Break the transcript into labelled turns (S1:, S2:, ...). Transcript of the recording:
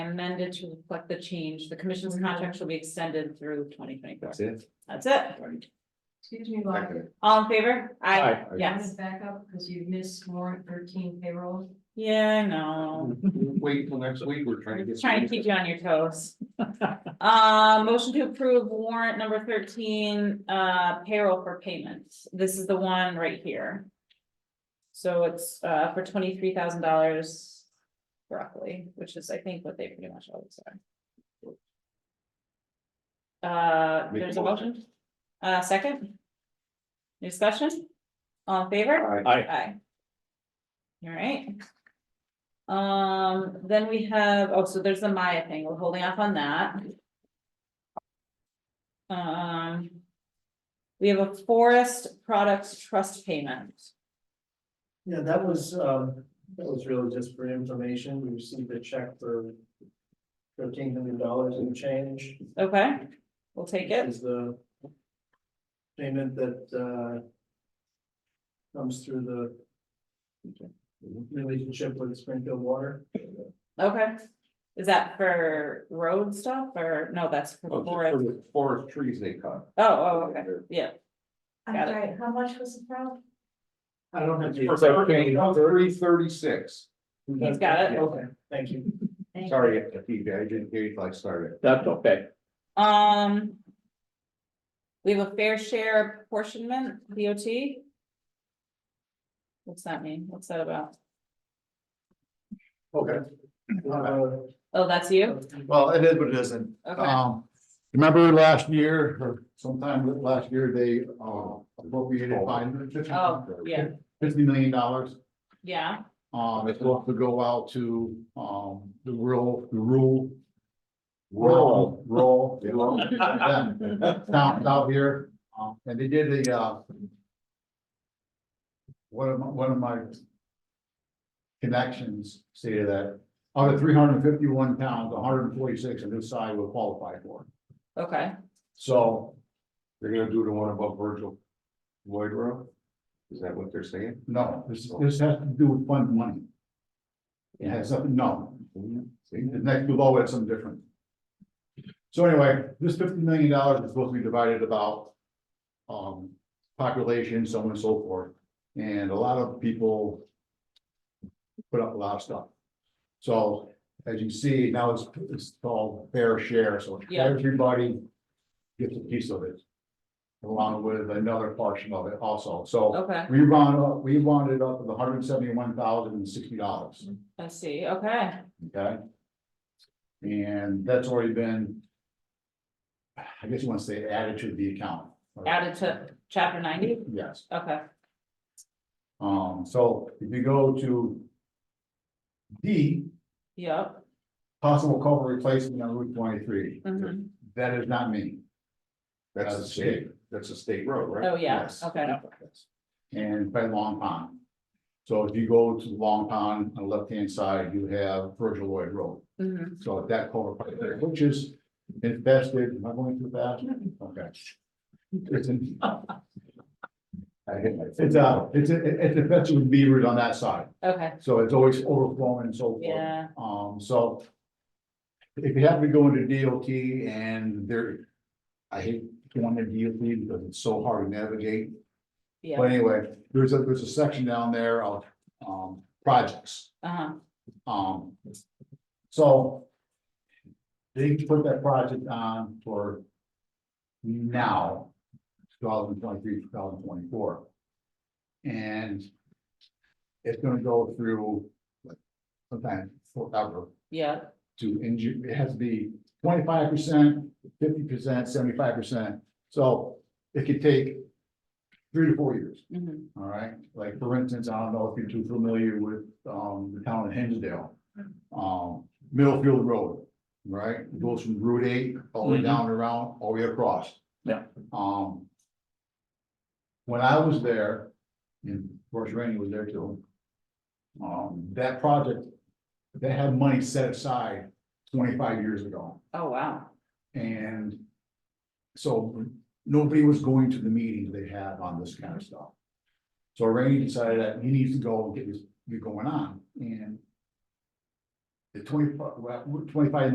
S1: amended to reflect the change. The commission's contract shall be extended through twenty twenty four.
S2: That's it.
S1: That's it.
S3: Excuse me, Laura,
S2: Second.
S1: All in favor?
S2: Aye.
S3: I'm
S1: Yes.
S3: gonna back up because you missed warrant thirteen payroll.
S1: Yeah, I know.
S2: Wait till next week, we're trying to get.
S1: Trying to keep you on your toes. Uh, motion to approve warrant number thirteen, uh, payroll for payments. This is the one right here. So it's, uh, for twenty-three thousand dollars roughly, which is, I think, what they pretty much always are. Uh,
S2: Make a
S1: there's a
S2: motion.
S1: motion, uh, second? Discussion? All in favor?
S2: Aye.
S1: Aye. All right. Um, then we have, oh, so there's the Maya thing, we're holding off on that. Um. We have a forest products trust payment.
S4: Yeah, that was, um, that was really just for information. We received a check for thirteen hundred dollars and change.
S1: Okay, we'll take it.
S4: Is the payment that, uh, comes through the relationship with Springfield Water.
S1: Okay. Is that for road stuff or no, that's
S2: Oh,
S1: for forest?
S2: Forest trees they cut.
S1: Oh, oh, okay. Yeah,
S3: I'm
S1: Got it.
S3: sorry, how much was the problem?
S4: I don't have the.
S2: Three thirty-six,
S1: He's got it.
S4: Okay, thank you.
S2: sorry, I didn't hear you till I started.
S5: That's okay.
S1: um. We have a fair share apportionment, DOT. What's that mean? What's that about?
S2: Okay.
S4: Uh,
S1: Oh, that's you?
S6: Well, it is what it isn't.
S1: Okay,
S6: Um, remember last year or sometime last year, they uh appropriated five hundred fifty
S1: oh, yeah,
S6: fifty million dollars.
S1: yeah,
S6: Um, it's going to go out to um the rural, the rural.
S2: Rural.
S6: Rural. yeah, Towns out here, um, and they did a uh. One of my, one of my. Connections stated that out of three hundred and fifty-one towns, hundred and forty-six on this side will qualify for. it.
S1: okay.
S6: So,
S2: They're gonna do the one above Virgil Lloyd Road? Is that what they're saying?
S6: no, this, this has to do with fund money. It has something, no,
S2: See?
S6: The next below it's some different. So anyway, this fifty million dollars is supposed to be divided about. Um, population, so on and so forth, and a lot of people. Put up a lot of stuff. So as you see, now it's, it's called fair share, so
S1: Yeah.
S6: everybody. Gets a piece of it. Along with another portion of it also, so
S1: Okay,
S6: we round up, we rounded up to the hundred and seventy-one thousand and sixty dollars.
S1: I see, okay,
S6: Okay? And that's already been. I guess you want to say added to the account. or-
S1: added to chapter ninety,
S6: Yes,
S1: okay,
S6: um, so if you go to. D,
S1: yep,
S6: possible culvert replacement on Route twenty-three,
S1: mhm,
S6: that is not me.
S2: That's the state, that's a state road, right?
S1: oh, yeah,
S6: Yes.
S1: okay,
S6: And by Long Pond. So if you go to Long Pond on the left-hand side, you have Virgil Lloyd Road.
S1: mhm,
S6: So that culvert right there, which is infested, am I going too fast? Okay. It's in,
S2: I hit my.
S6: It's uh it's it- it's infested with beavers on that side,
S1: okay,
S6: so it's always overflowing and so forth.
S1: yeah,
S6: Um, so. If you happen to go into DOT and there, I hate going to DOT because it's so hard to navigate. But
S1: yeah,
S6: anyway, there's a, there's a section down there of um projects.
S1: uh-huh,
S6: Um, so. They put that project on for. Now. Two thousand twenty-three, two thousand twenty-four. And. It's gonna go through. like, Sometime forever
S1: yeah,
S6: to injure, it has to be twenty-five percent, fifty percent, seventy-five percent. So it could take. Three to four years.
S1: mhm,
S6: All right, like for instance, I don't know if you're too familiar with um the town of Hinsdale. Um, Middlefield Road, right, It goes from Route eight all the way
S5: Mhm.
S6: down and around, all the way across.
S5: Yeah.
S6: Um. When I was there, and of course Randy was there too. Um, that project, they had money set aside twenty-five years ago.
S1: oh, wow,
S6: And so nobody was going to the meetings they had on this kind of stuff. So Randy decided that he needs to go and get this, get going on and the twenty, well, twenty-five